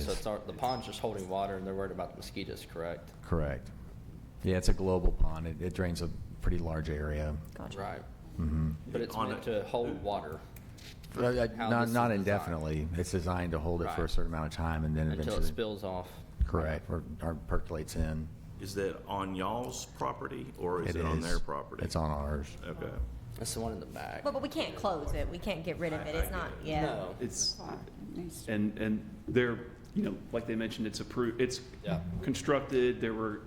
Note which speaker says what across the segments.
Speaker 1: So
Speaker 2: is.
Speaker 1: it's, our- the pond's just holding water and they're worried about the mosquitoes, correct?
Speaker 2: Correct. Yeah, it's a global pond. It, it drains a pretty large area.
Speaker 3: Gotcha.
Speaker 1: Right. Mm-hmm.
Speaker 2: Mhm.
Speaker 1: But it's
Speaker 4: On
Speaker 1: meant
Speaker 4: it.
Speaker 1: to hold water
Speaker 2: Uh, uh,
Speaker 1: How this
Speaker 2: Not,
Speaker 1: is
Speaker 2: not
Speaker 1: designed.
Speaker 2: indefinitely. It's designed to hold it for a
Speaker 1: Right.
Speaker 2: certain amount of time and then
Speaker 1: until it
Speaker 2: eventually.
Speaker 1: spills off.
Speaker 2: Correct, or, or percolates in.
Speaker 4: Is that on y'all's property or is it on their property?
Speaker 2: It's on ours.
Speaker 4: Okay.
Speaker 1: That's the one in the back.
Speaker 3: But, but we can't close it. We can't get rid of it. It's not, yeah.
Speaker 1: No,
Speaker 5: It's,
Speaker 6: Nice.
Speaker 5: and, and they're, you know, like they mentioned, it's approved, it's
Speaker 1: Yeah.
Speaker 5: constructed, there were,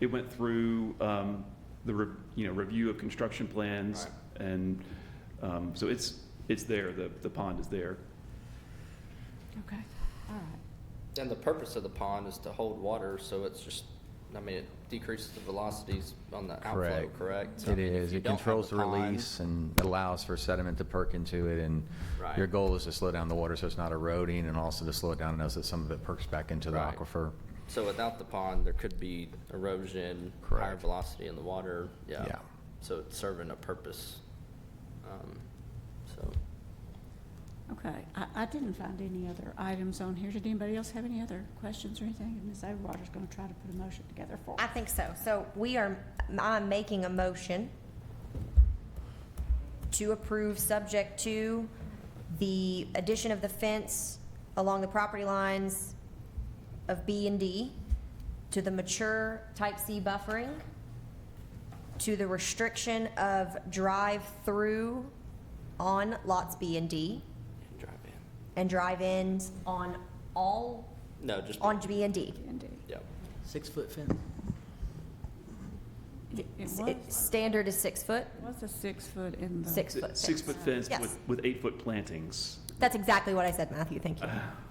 Speaker 5: it went through um, the, re- you know, review of construction plans, and um, so it's, it's there, the, the pond is there.
Speaker 6: Okay, all right.
Speaker 1: and the purpose of the pond is to hold water, so it's just, I mean, it decreases the velocities on the outflow, correct? So, I
Speaker 2: It
Speaker 1: mean, if
Speaker 2: is.
Speaker 1: you
Speaker 2: It
Speaker 1: don't have
Speaker 2: controls the
Speaker 1: pond-
Speaker 2: release and allows for sediment to perk into it, and
Speaker 1: Right.
Speaker 2: your goal is to slow down the water so it's not eroding, and also to slow it down enough that some of it perks back into the
Speaker 1: Right.
Speaker 2: aquifer.
Speaker 1: So without the pond, there could be erosion, higher
Speaker 2: Correct.
Speaker 1: velocity in the water, yeah.
Speaker 2: Yeah.
Speaker 1: So it's serving a purpose. Um, So,
Speaker 6: Okay, I, I didn't find any other items on here. Did anybody else have any other questions or anything? And Ms. Overwater's gonna try to put a motion together for
Speaker 3: I
Speaker 6: us.
Speaker 3: think so. So we are, I'm making a motion to approve, subject to the addition of the fence along the property lines of B and D, to the mature type C buffering, to the restriction of drive-through on lots B and D,
Speaker 1: drive in.
Speaker 3: and drive-ins on all,
Speaker 1: No, just,
Speaker 3: on B and D.
Speaker 6: Indeed.
Speaker 1: yeah.
Speaker 7: Six-foot fence.
Speaker 6: It it
Speaker 3: S- it-
Speaker 6: was,
Speaker 3: Standard is six foot,
Speaker 6: it was a six foot in the.
Speaker 3: six foot.
Speaker 5: Six-foot fence
Speaker 3: Yes.
Speaker 5: with, with eight-foot plantings.
Speaker 3: That's exactly what I said, Matthew, thank you.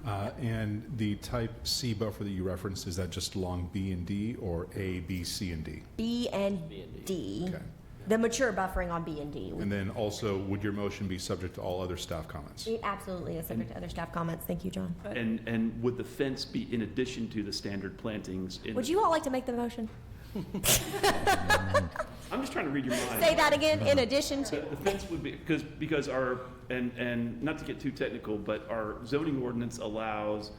Speaker 8: Uh, And the type C buffer that you referenced, is that just along B and D or A, B, C, and D?
Speaker 3: B and D.
Speaker 8: Okay.
Speaker 3: The mature buffering on B and D.
Speaker 8: And then also, would your motion be subject to all other staff comments?
Speaker 3: It absolutely is subject to other staff comments, thank you, John.
Speaker 5: And, and would the fence be in addition to the standard plantings? in-
Speaker 3: Would you all like to make the motion?
Speaker 5: I'm just trying to read your mind.
Speaker 3: Say that again, in addition
Speaker 5: The
Speaker 3: to,
Speaker 5: the fence would be, because, because our, and, and not to get too technical, but our zoning ordinance allows,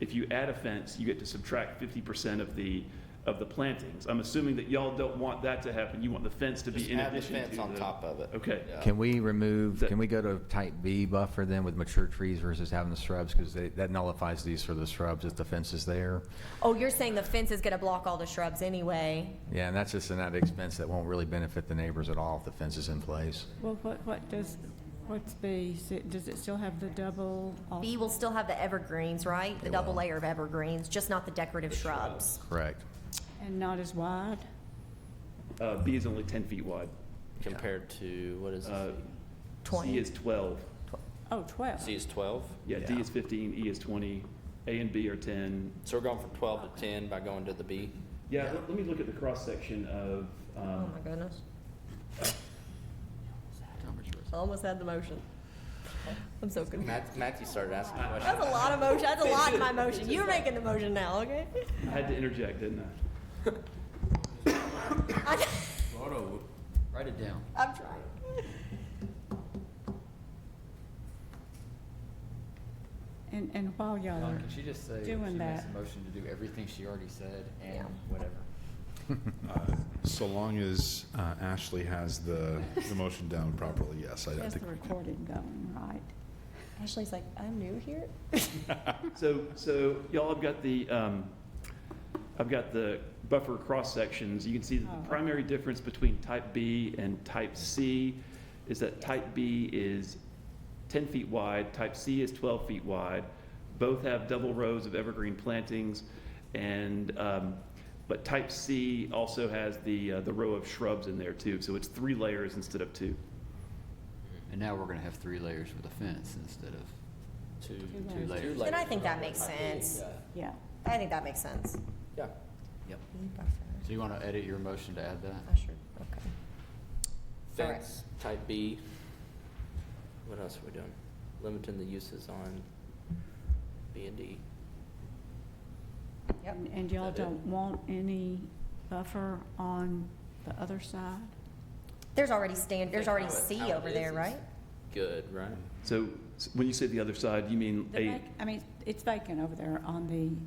Speaker 5: if you add a fence, you get to subtract fifty percent of the, of the plantings. I'm assuming that y'all don't want that to happen. You want the fence to
Speaker 1: Just
Speaker 5: be in
Speaker 1: add the
Speaker 5: addition to the.
Speaker 1: fence on top of it.
Speaker 5: Okay.
Speaker 1: Yeah.
Speaker 2: Can we remove,
Speaker 5: That-
Speaker 2: can we go to type B buffer then with mature trees versus having the shrubs? Because that nullifies these for the shrubs if the fence is there.
Speaker 3: oh, you're saying the fence is gonna block all the shrubs anyway?
Speaker 2: Yeah, and that's just an added expense that won't really benefit the neighbors at all if the fence is in place.
Speaker 6: Well, what, what does, what's B? Is it- Does it still have the double? off-
Speaker 3: B will still have the evergreens, right? The
Speaker 2: It
Speaker 3: double
Speaker 2: will.
Speaker 3: layer of evergreens, just not the decorative shrubs.
Speaker 2: Correct.
Speaker 6: And not as wide?
Speaker 5: Uh, B is only ten feet wide.
Speaker 1: Compared to, what is
Speaker 5: Uh,
Speaker 1: this?
Speaker 5: C
Speaker 3: Twenty,
Speaker 5: is twelve.
Speaker 6: Oh, twelve.
Speaker 1: C is 12?
Speaker 5: Yeah, D is fifteen, E is twenty, A and B are ten.
Speaker 1: So we're going from 12 to 10 by going to the B?
Speaker 5: Yeah, let, let me look at the cross-section of,
Speaker 3: oh
Speaker 5: um,
Speaker 3: my goodness. Almost had the motion. I'm so confused.
Speaker 1: Matt- Matthew started
Speaker 5: Uh,
Speaker 1: asking questions.
Speaker 3: That's a lot of motion, that's a lot in my motion. You're making the motion now, okay?
Speaker 5: I had to interject, didn't I?
Speaker 7: Auto, write it down.
Speaker 3: I'm trying.
Speaker 6: And, and while y'all
Speaker 7: Don,
Speaker 6: are,
Speaker 7: Oh, can she just say, she
Speaker 6: doing
Speaker 7: makes a
Speaker 6: that.
Speaker 7: motion to do everything she already said and whatever.
Speaker 8: So long as uh, Ashley has the, the motion down properly, yes, I I
Speaker 6: there's
Speaker 8: think.
Speaker 6: the recording going, right?
Speaker 3: Ashley's like, I'm new here.
Speaker 5: So, so y'all have got the, um, I've got the buffer cross sections. You can see that
Speaker 6: Oh.
Speaker 5: the primary difference between type B and type C is that type B is ten feet wide, type C is twelve feet wide. Both have double rows of evergreen plantings and, um, but type C also has the, uh, the row of shrubs in there too. So it's three layers instead of two.
Speaker 7: And now we're gonna have three layers with a fence instead of
Speaker 1: Two,
Speaker 6: Two
Speaker 1: two
Speaker 7: layers.
Speaker 1: layers.
Speaker 3: And I think that makes sense.
Speaker 6: Yeah.
Speaker 3: I think that makes sense.
Speaker 1: Yeah.
Speaker 7: Yep.
Speaker 3: Bee buffer,
Speaker 7: So you wanna edit your motion to add that?
Speaker 3: usher, okay. Alright.
Speaker 1: Fence, type B. What else are we doing? Limiting the uses on B and D.
Speaker 3: Yep.
Speaker 6: And- And y'all
Speaker 1: That it?
Speaker 6: don't want any buffer on the other side?
Speaker 3: There's already stand, there's already
Speaker 1: How it-
Speaker 3: C
Speaker 1: how it
Speaker 3: over
Speaker 1: is
Speaker 3: there,
Speaker 1: is
Speaker 3: right?
Speaker 1: Good, right?
Speaker 5: So s- when you say the other side, you mean
Speaker 6: The
Speaker 5: a,
Speaker 6: back- I mean, it's vacant over there on the